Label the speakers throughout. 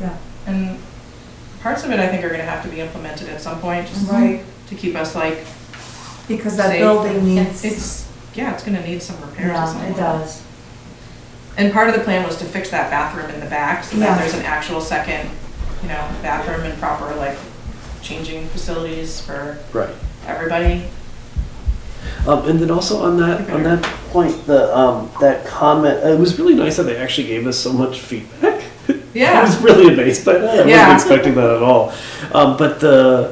Speaker 1: Yeah.
Speaker 2: And parts of it, I think, are gonna have to be implemented at some point, just
Speaker 1: Right,
Speaker 2: to keep us like.
Speaker 1: because Mm-hmm. that
Speaker 2: safe.
Speaker 1: building
Speaker 2: It's-
Speaker 1: needs,
Speaker 2: It's, yeah, it's gonna need some repairs at some
Speaker 3: Yeah, it
Speaker 2: point.
Speaker 3: does.
Speaker 2: And part of the plan was to fix that bathroom in the back, so
Speaker 1: Yeah.
Speaker 2: that there's an actual second, you know, bathroom and proper like changing facilities for
Speaker 4: Right.
Speaker 2: everybody.
Speaker 4: Um, and then also on that on that point, the um, that comment it was really nice that they actually gave us so much feedback. I
Speaker 2: Yeah,
Speaker 4: was really amazed by that. I
Speaker 2: Yeah.
Speaker 4: wasn't expecting that at all. Um, but the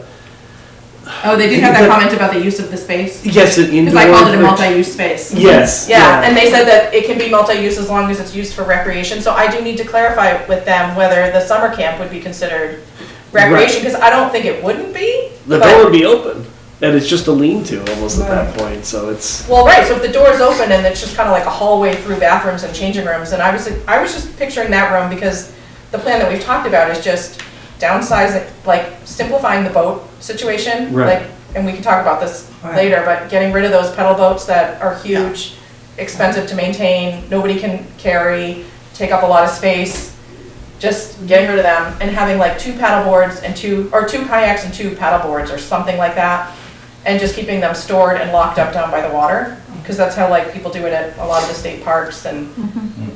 Speaker 2: oh, they did have that comment about the use of the space,
Speaker 4: yes, it
Speaker 2: because
Speaker 4: indoor.
Speaker 2: I called it a multi-use space.
Speaker 4: Yes.
Speaker 5: Yeah, and they said that it can be multi-use as long as it's used for recreation, so I do need to clarify with them whether the summer camp would be considered recreation, because I don't think it wouldn't be.
Speaker 4: the
Speaker 5: but-
Speaker 4: door would be open, and it's just a lean-to almost at that point. So it's
Speaker 5: Well, right, so if the door's open and it's just kind of like a hallway through bathrooms and changing rooms, and I was, I was just picturing that room because the plan that we've talked about is just downsizing, like simplifying the boat situation.
Speaker 4: Right.
Speaker 5: Like, and we can talk about this
Speaker 1: Right.
Speaker 5: later, but getting rid of those pedal boats that are huge, expensive to maintain, nobody can carry, take up a lot of space. Just getting rid of them and having like two paddle boards and two, or two kayaks and two paddle boards or something like that. And just keeping them stored and locked up down by the water, because that's how like people do it at a lot of the state parks and,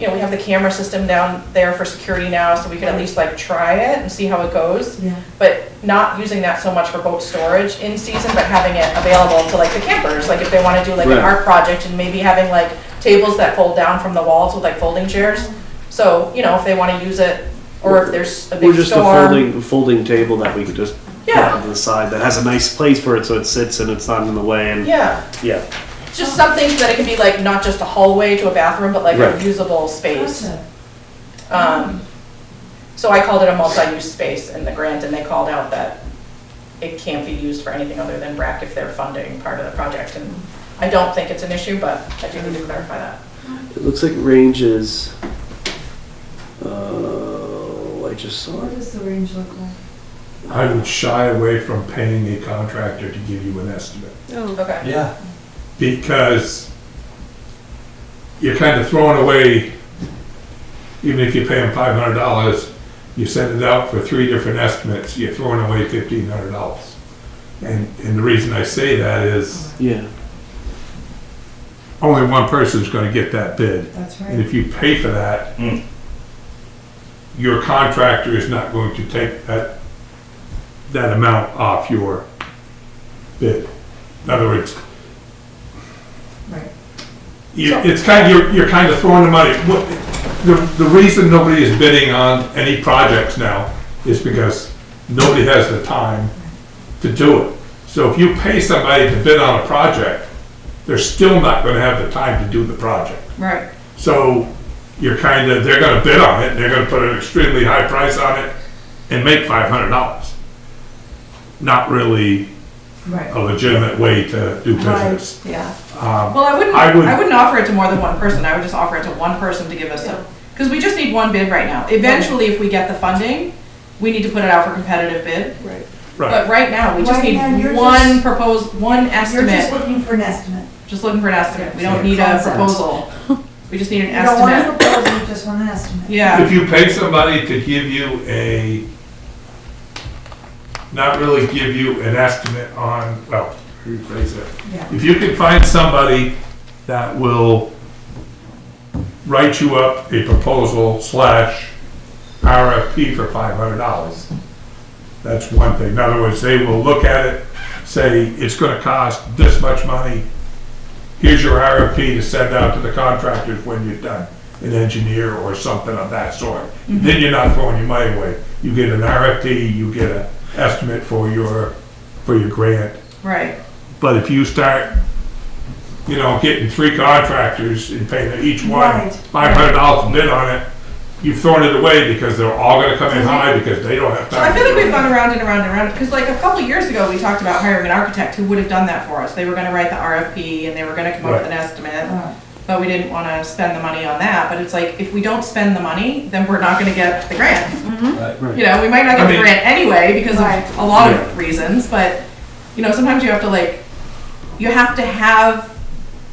Speaker 5: you know, we have the camera system down there for security now, so we can at least like try it and see how it goes.
Speaker 1: yeah,
Speaker 5: But not using that so much for boat storage in season, but having it available to like the campers, like if they wanna do like an
Speaker 4: Right.
Speaker 5: art project and maybe having like tables that fold down from the walls with like folding chairs. So, you know, if they wanna use it, or if there's a
Speaker 4: we're
Speaker 5: big
Speaker 4: just a
Speaker 5: storm.
Speaker 4: folding folding table that we could just put
Speaker 5: Yeah,
Speaker 4: on the side that has a nice place for it, so it sits and it's not in the way. And
Speaker 5: yeah,
Speaker 4: yeah.
Speaker 5: just some things that it can be like not just a hallway to a bathroom, but like
Speaker 4: Right.
Speaker 5: a usable space.
Speaker 3: Gotcha.
Speaker 5: Um, So I called it a multi-use space in the grant, and they called out that it can't be used for anything other than BRAC if they're funding part of the project. And I don't think it's an issue, but I do need to clarify that.
Speaker 4: It looks like range is. Uh, I just saw
Speaker 1: what
Speaker 4: it.
Speaker 1: does the range look like?
Speaker 6: I would shy away from paying a contractor to give you an estimate,
Speaker 2: Oh.
Speaker 5: Okay.
Speaker 7: Yeah.
Speaker 6: because you're kind of throwing away, even if you pay them five hundred dollars, you send it out for three different estimates, you're throwing away fifteen hundred dollars. And, and the reason I say that is,
Speaker 4: Yeah.
Speaker 6: only one person's gonna get that bid.
Speaker 1: That's
Speaker 6: And
Speaker 1: right.
Speaker 6: if you pay for that,
Speaker 7: Mm.
Speaker 6: your contractor is not going to take that, that amount off your bid. In other words,
Speaker 1: Right.
Speaker 6: you- it's kind, you're, you're kind of throwing the money. What- The, the reason nobody is bidding on any projects now is because nobody has the time to do it. So if you pay somebody to bid on a project, they're still not gonna have the time to do the project.
Speaker 2: Right.
Speaker 6: So you're kind of, they're gonna bid on it, and they're gonna put an extremely high price on it and make five hundred dollars. Not really
Speaker 1: Right,
Speaker 6: a legitimate way to do business.
Speaker 1: right, yeah,
Speaker 6: Um,
Speaker 2: Well, I wouldn't,
Speaker 6: I would-
Speaker 2: I wouldn't offer it to more than one person, I would just offer it to one person to give us a, because we just need one bid right now. Eventually, if we get the funding, we need to put it out for competitive bid,
Speaker 1: right.
Speaker 2: but right now, we just
Speaker 1: Right now,
Speaker 2: need
Speaker 1: you're
Speaker 2: one
Speaker 1: just-
Speaker 2: proposed, one
Speaker 1: You're just
Speaker 2: estimate.
Speaker 1: looking for an estimate.
Speaker 2: Just looking for an estimate, we don't
Speaker 1: Yeah,
Speaker 2: need a
Speaker 1: concept.
Speaker 2: proposal, we just need an
Speaker 1: You don't want
Speaker 2: estimate.
Speaker 1: a proposal, you just want an estimate.
Speaker 2: Yeah,
Speaker 6: If you pay somebody to give you a, not really give you an estimate on, well, rephrase that.
Speaker 1: Yeah,
Speaker 6: If you can find somebody that will write you up a proposal slash RFP for five hundred dollars, that's one thing. In other words, they will look at it, say, it's gonna cost this much money. Here's your RFP to send out to the contractors when you're done, an engineer or something of that sort. Then you're not throwing your money away. You get an RFP, you get an estimate for your, for your grant,
Speaker 2: right,
Speaker 6: but if you start, you know, getting three contractors and paying each one
Speaker 1: Right.
Speaker 6: five hundred dollars a bid on it, you've thrown it away because they're all gonna come in high because they don't have
Speaker 2: so I
Speaker 6: time. to
Speaker 2: feel like
Speaker 6: do
Speaker 2: we've
Speaker 6: it.
Speaker 2: gone around and around and around, because like a couple years ago, we talked about hiring an architect who would have done that for us, they were gonna write the RFP, and they were gonna come up with an estimate.
Speaker 1: all right.
Speaker 2: but we didn't want to spend the money on that. But it's like, if we don't spend the money, then we're not going to get the grant.
Speaker 7: Right.
Speaker 2: You know, we might not get
Speaker 6: I
Speaker 2: the
Speaker 6: mean-
Speaker 2: grant anyway because
Speaker 1: Right.
Speaker 2: of a lot of reasons, but, you know, sometimes you have to like, you have to have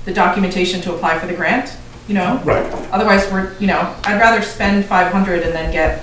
Speaker 2: the documentation to apply for the grant, you know?
Speaker 6: Right.
Speaker 2: Otherwise, we're, you know, I'd rather spend 500 and then get